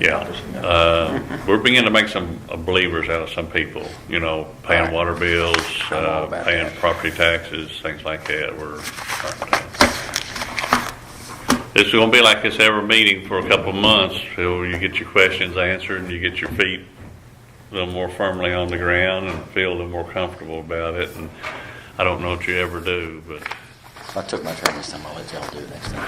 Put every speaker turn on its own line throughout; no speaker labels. Yeah, uh, we're beginning to make some uh, believers out of some people, you know, paying
Right.
water bills,
I'm all
uh,
about
paying
that.
property taxes, things like that, we're. starting to- This is gonna be like this every meeting for a couple of months, till you get your questions answered, and you get your feet a little more firmly on the ground and feel a little more comfortable about it, and I don't know what you ever do, but,
I took my turn this time, I'll let y'all do it next time.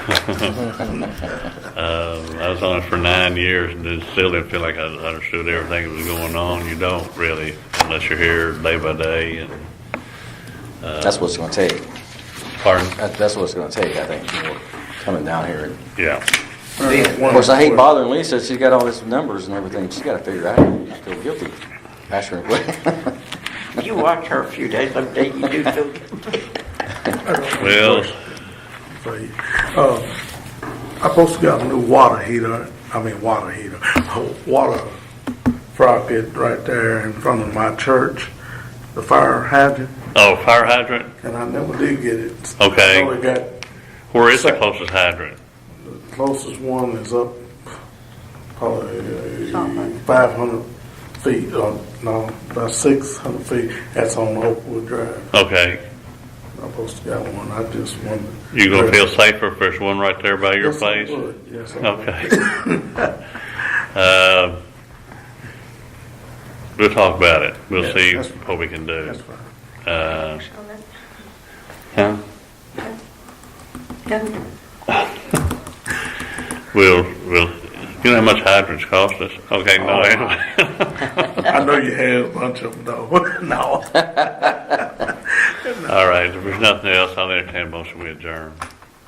uh, I was on it for nine years and it still didn't feel like I understood everything that was going on. You don't really, unless you're here day by day and,
That's what it's gonna take.
pardon?
That- That's what it's gonna take, I think, for coming down here. and-
Yeah,
Of course, I hate bothering Lisa, she's got all these numbers and everything, she's gotta figure out, I feel guilty. Ask her, what?
You watch her a few days, I'm telling you, you do.
well,
Say, uh, I supposed to got a new water heater, I mean water heater, water fry pit right there in front of my church, the fire hydrant,
oh, fire hydrant?
and I never did get it.
Okay.
I only got,
Where is the closest hydrant?
closest one is up probably five hundred feet, uh, no, about six hundred feet, that's on Oakwood Drive.
Okay,
I supposed to got one, I just wondered.
you gonna feel safer if there's one right there by your
Yes, I
place?
would. Yes, I would.
Okay. Uh, We'll talk about it. We'll
Yeah,
see
that's-
what we can do.
That's fine.
Uh, huh? We'll, we'll, you know how much hydrants cost us? Okay,
Oh,
no, anyway.
I know you had a bunch of them though. no.
All right, if there's nothing else, I'll entertain a motion, we adjourn.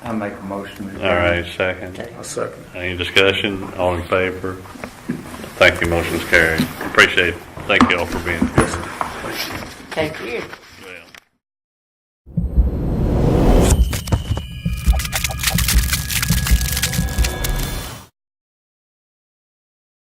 I make a motion. to
All right, second.
A second.
Any discussion? All in favor? Thank you, motion's carried. Appreciate it. Thank you all for being here.
Thank you.